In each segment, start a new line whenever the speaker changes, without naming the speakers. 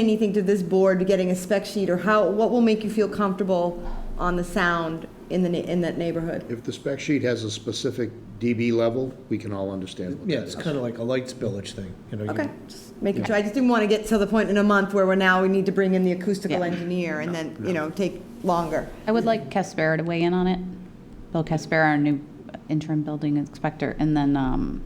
anything to this board, getting a spec sheet, or how, what will make you feel comfortable on the sound in the, ne- in that neighborhood?
If the spec sheet has a specific dB level, we can all understand what
Yeah,
that
it's
is.
kind of like a light spillage thing, you know. you-
Okay, just making sure, I just didn't want to get to the point in a month where we're now, we need to bring in the acoustical
Yeah.
engineer and then, you know, take longer.
I would like Caspera to weigh in on it. Bill Caspera, our new interim building inspector, and then, um,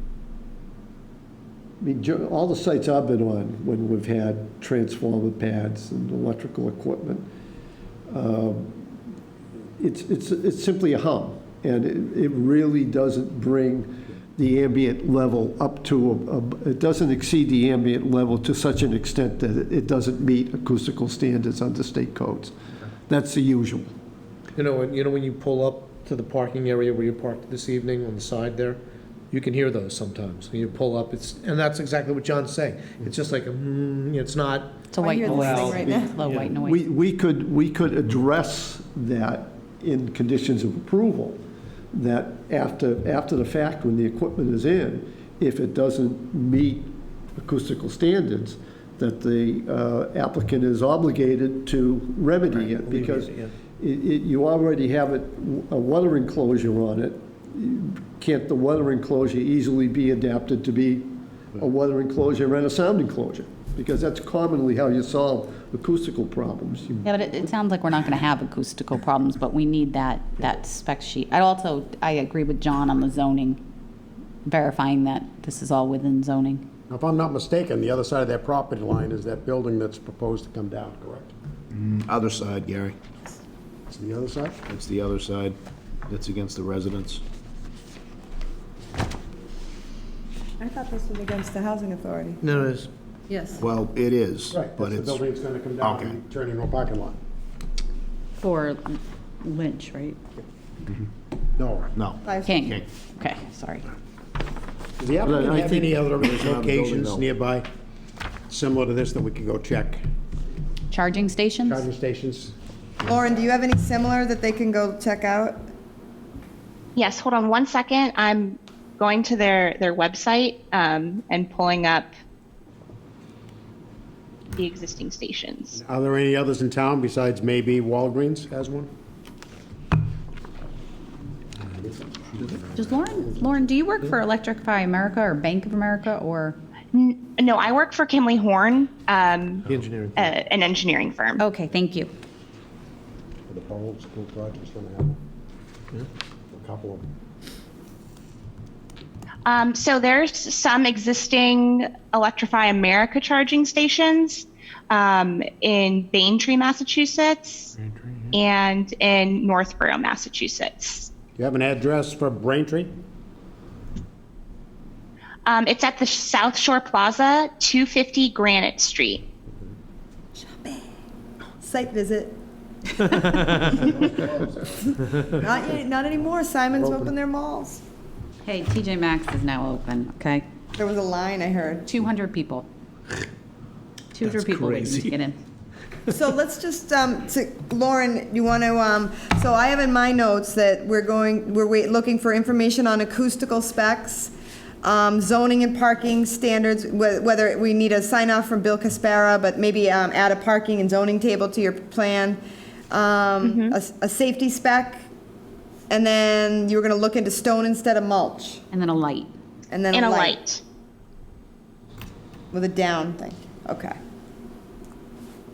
I mean, jo- all the sites I've been on, when we've had transformer pads and electrical equipment, um, it's, it's, it's simply a hum, and it, it really doesn't bring the ambient level up to, a- a- it doesn't exceed the ambient level to such an extent that it- it doesn't meet acoustical standards under state codes. That's the usual.
You know, and you know when you pull up to the parking area where you parked this evening on the side there, you can hear those sometimes. When you pull up, it's, and that's exactly what John's saying. It's just like, mm, it's not,
it's a
I
white
hear this thing
noise,
right now.
low white noise.
We, we could, we could address that in conditions of approval, that after, after the fact, when the equipment is in, if it doesn't meet acoustical standards, that the uh, applicant is obligated to remedy it, because
Remediate
it,
it,
it, you already have it, a water enclosure on it. Can't the water enclosure easily be adapted to be a water enclosure and a sound enclosure? Because that's commonly how you solve acoustical problems. You
Yeah, but it, it sounds like we're not gonna have acoustical problems, but we need that, that spec sheet. I also, I agree with John on the zoning, verifying that this is all within zoning.
If I'm not mistaken, the other side of that property line is that building that's proposed to come down, correct?
Other side, Gary.
It's the other side?
It's the other side. That's against the residents.
I thought this was against the housing authority.
no, it's,
Yes.
Well, it is,
Right,
but
that's the
it's,
building that's gonna come down
Okay.
and turn into a parking lot.
For Lynch, right?
No.
no.
King,
King.
okay, sorry.
Does the applicant
I
have
think-
any other locations
though.
nearby similar to this that we could go check?
Charging stations?
Charging stations?
Lauren, do you have any similar that they can go check out?
Yes, hold on one second. I'm going to their, their website um, and pulling up the existing stations.
Are there any others in town besides maybe Walgreens has one?
Does Lauren, Lauren, do you work for Electrify America or Bank of America or?
N- No, I work for Kimley Horn, um,
the engineering.
uh, an engineering firm.
Okay, thank you.
Are The whole school project's gonna have one? A couple of them.
Um, so there's some existing Electrify America charging stations um, in Baintree, Massachusetts, and in Northborough, Massachusetts.
Do you have an address for Braintree?
Um, it's at the South Shore Plaza, 250 Granite Street.
Site visit. Not, yet- not anymore, Simon's open their malls.
Hey, TJ Maxx is now open, okay?
There was a line I heard.
200 people. 200 people waiting to get in.
So let's just, um, to- Lauren, you want to, um, so I have in my notes that we're going, we're wait, looking for information on acoustical specs, um, zoning and parking standards, whe- whether we need a sign off from Bill Caspara, but maybe, um, add a parking and zoning table to your plan, um, a, s- a safety spec, and then you were gonna look into stone instead of mulch,
And then a light.
and then
And
a
a
light
light.
with a down thing, okay.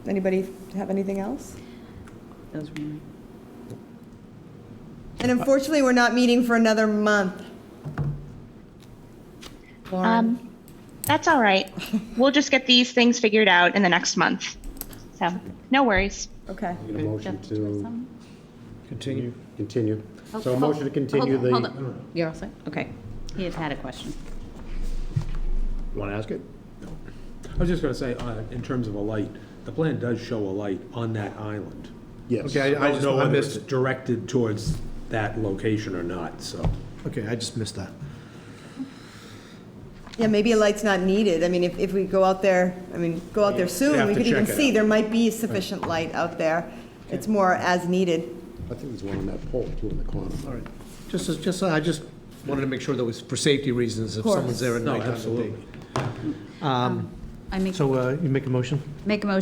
Anybody have anything else?
Those were mine.
And unfortunately, we're not meeting for another month. Lauren,
Um, that's all right. We'll just get these things figured out in the next month. So, no worries.
okay.
Need a motion
Jeff, did you have
to
some?
Continue.
continue.
Oh,
So a
hold-
motion to continue
hold on,
the.
hold on. You're all set? Okay. He had had a question.
Want to ask it?
I was just gonna say, uh, in terms of a light, the plan does show a light on that island.
Yes.
Okay, I-
I don't know
Oh, I
whether it's
missed it.
directed towards that location or not, so.
Okay, I just missed that.
Yeah, maybe a light's not needed. I mean, if, if we go out there, I mean, go out there soon,
have
we
to
could even
check it
see,
out.
there might be sufficient light out there. It's more as needed.
I think there's one on that pole too in the corner.
All right. Just, as- just, I just wanted to make sure that was for safety reasons if
course.
someone's there at
No,
night.
absolutely.
I make,
So uh, you make a motion?
make a motion